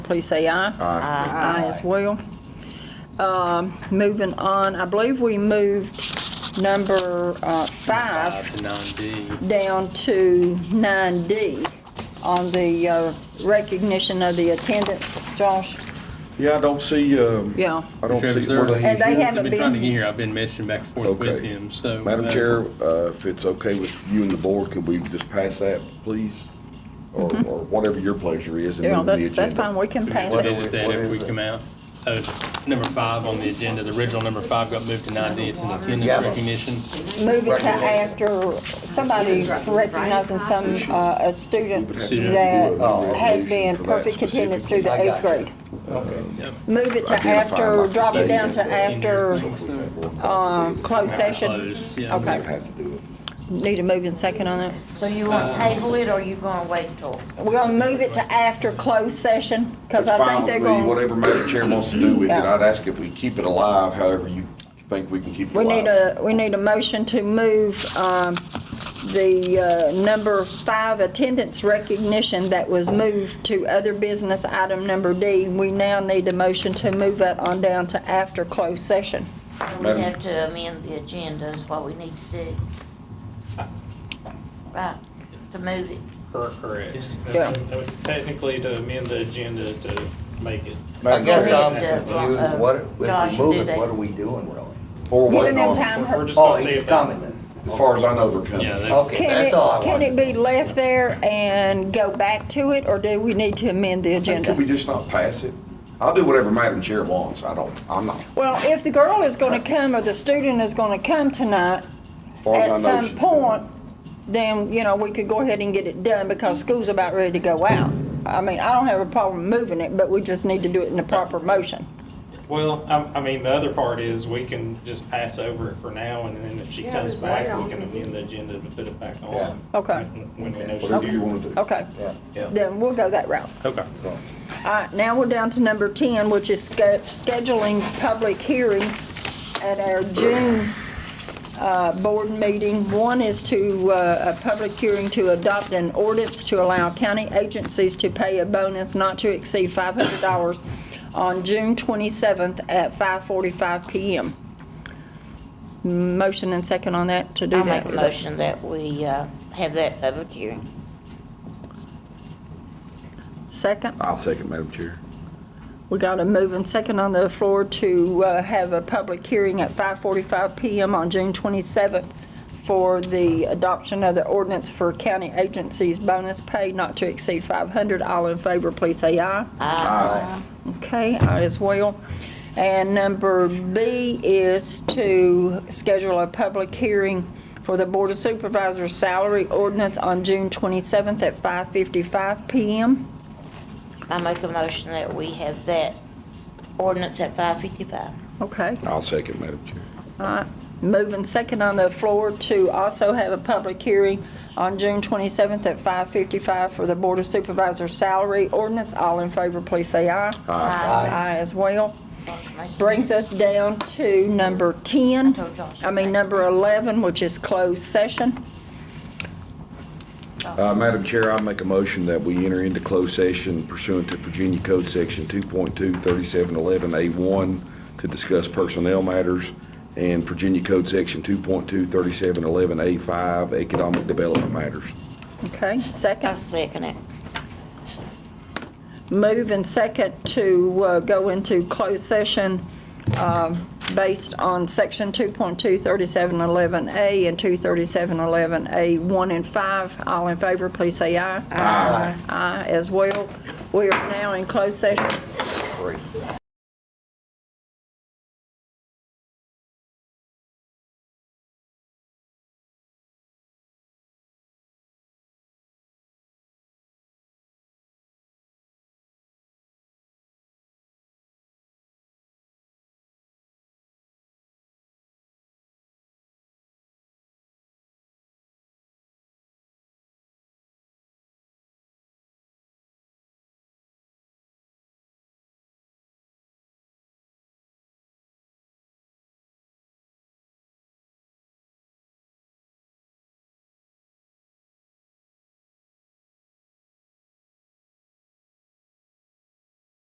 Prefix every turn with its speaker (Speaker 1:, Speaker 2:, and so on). Speaker 1: please say aye. Aye. Aye as well. Um, Moving on, I believe we moved number uh, five
Speaker 2: Five to nine D.
Speaker 1: down to 9D on the uh, recognition of the attendance, Josh.
Speaker 3: Yeah, I don't see, um,
Speaker 1: Yeah.
Speaker 3: I don't see where the
Speaker 1: And they
Speaker 3: hand.
Speaker 1: haven't
Speaker 2: I've been trying to
Speaker 1: been-
Speaker 2: get here, I've been messaging back and forth with
Speaker 3: Okay.
Speaker 2: him, so.
Speaker 3: Madam
Speaker 2: uh,
Speaker 3: Chair, uh, if it's okay with you and the board, could we just pass that, please? Or
Speaker 1: Mm-hmm.
Speaker 3: or whatever your pleasure is and
Speaker 1: Yeah,
Speaker 3: move the agenda.
Speaker 1: that- that's fine, we can
Speaker 2: we
Speaker 1: pass
Speaker 2: can
Speaker 1: it.
Speaker 2: Revisit that
Speaker 3: What
Speaker 2: if we
Speaker 3: is it?
Speaker 2: come out. Uh, number five on the agenda, the original number five got moved to nine D, it's an attendance
Speaker 4: Yeah.
Speaker 2: recognition.
Speaker 1: Move it to after somebody recognizing some, uh, a student
Speaker 2: Student.
Speaker 1: that
Speaker 4: Oh.
Speaker 1: has been
Speaker 3: For that
Speaker 1: perfect
Speaker 3: specific-
Speaker 1: attendance through the
Speaker 4: I
Speaker 1: eighth
Speaker 4: got you.
Speaker 1: grade.
Speaker 4: Um,
Speaker 1: Move it to after, drop it down to after uh, closed session.
Speaker 2: Closed, yeah.
Speaker 1: Okay.
Speaker 3: We'd have to do it.
Speaker 1: Need a move and second on it.
Speaker 5: So you want to table it, or you gonna wait till?
Speaker 1: We're gonna move it to after closed session, because
Speaker 3: That's
Speaker 1: I
Speaker 3: fine
Speaker 1: think they're
Speaker 3: with me.
Speaker 1: going,
Speaker 3: Whatever Madam Chair wants to do with it,
Speaker 1: Yeah.
Speaker 3: I'd ask if we keep it alive, however you think we can keep it
Speaker 1: we
Speaker 3: alive.
Speaker 1: need a, we need a motion to move um, the uh, number five attendance recognition that was moved to other business item number D. We now need a motion to move that on down to after closed session.
Speaker 5: We
Speaker 3: Madam-
Speaker 5: have to amend the agenda is what we need to do. Right, to move it.
Speaker 6: Cor- Correct.
Speaker 1: Yeah.
Speaker 6: Technically, to amend the agenda is to make it
Speaker 4: I
Speaker 3: Madam
Speaker 4: guess um,
Speaker 3: Chair,
Speaker 4: I'm
Speaker 5: Yeah,
Speaker 4: confused,
Speaker 5: uh,
Speaker 4: what,
Speaker 5: Josh,
Speaker 4: if we
Speaker 5: do
Speaker 4: move
Speaker 5: that.
Speaker 4: it, what are we doing really?
Speaker 3: Or
Speaker 1: Giving
Speaker 3: waiting
Speaker 1: them
Speaker 3: on-
Speaker 1: time,
Speaker 6: We're
Speaker 1: her-
Speaker 6: just
Speaker 4: Oh,
Speaker 6: gonna see
Speaker 4: he's
Speaker 6: if that.
Speaker 4: coming then.
Speaker 3: As far as I know, they're
Speaker 2: Yeah,
Speaker 3: coming.
Speaker 2: they-
Speaker 4: Okay,
Speaker 1: can
Speaker 4: that's
Speaker 1: it,
Speaker 4: all I
Speaker 1: can it be
Speaker 4: wanted.
Speaker 1: left there and go back to it, or do we need to amend the agenda?
Speaker 3: Could we just not pass it? I'll do whatever Madam Chair wants. I don't, I'm not,
Speaker 1: Well, if the girl is gonna come or the student is gonna come tonight,
Speaker 3: as far
Speaker 1: at
Speaker 3: as I know.
Speaker 1: some
Speaker 3: she's
Speaker 1: point,
Speaker 3: coming.
Speaker 1: then, you know, we could go ahead and get it done because school's about ready to go out. I mean, I don't have a problem moving it, but we just need to do it in the proper motion.
Speaker 6: Well, I, I mean, the other part is we can just pass over it for now, and then if she
Speaker 7: Yeah,
Speaker 6: comes
Speaker 7: just wait
Speaker 6: back, we
Speaker 7: on
Speaker 6: can
Speaker 7: it.
Speaker 6: amend the agenda to put it back
Speaker 4: Yeah.
Speaker 6: on.
Speaker 1: Okay.
Speaker 6: When we know she's
Speaker 3: Whatever you
Speaker 6: here.
Speaker 3: want to do.
Speaker 1: Okay,
Speaker 4: Yeah,
Speaker 1: then we'll go that route.
Speaker 6: Okay.
Speaker 4: so,
Speaker 1: All right, now we're down to number 10, which is sch- scheduling public hearings at our June uh, board meeting. One is to, uh, a public hearing to adopt an ordinance to allow county agencies to pay a bonus not to exceed $500 on June 27th at 5:45 PM. Motion and second on that to do
Speaker 5: I
Speaker 1: that.
Speaker 5: make a
Speaker 1: Is that-
Speaker 5: motion that we, uh, have that public hearing.
Speaker 1: Second?
Speaker 3: I'll second Madam Chair.
Speaker 1: We got a move and second on the floor to uh, have a public hearing at 5:45 PM on June 27th for the adoption of the ordinance for county agencies bonus pay not to exceed 500. All in favor, please say aye. Okay, aye as well. And number B is to schedule a public hearing for the Board of Supervisors salary ordinance on June 27th at 5:55 PM.
Speaker 5: I make a motion that we have that ordinance at five fifty-five.
Speaker 1: Okay.
Speaker 3: I'll second Madam Chair.
Speaker 1: Moving second on the floor to also have a public hearing on June 27th at 5:55 for the Board of Supervisors salary ordinance. All in favor, please say aye.
Speaker 5: Aye.
Speaker 1: Aye as well. Brings us down to number 10,
Speaker 5: told Josh.
Speaker 1: I mean, number 11, which is closed session.
Speaker 3: Uh, Madam Chair, I make a motion that we enter into closed session pursuant to Virginia Code Section 2.23711A1 to discuss personnel matters and Virginia Code Section 2.23711A5 economic development matters.
Speaker 1: Okay,
Speaker 5: I
Speaker 1: second.
Speaker 5: second it.
Speaker 1: Move and second to uh, go into closed session um, based on Section 2.23711A and 23711A1 and 5. All in favor, please say aye. Aye. Aye as well. We are now in closed session.
Speaker 4: great.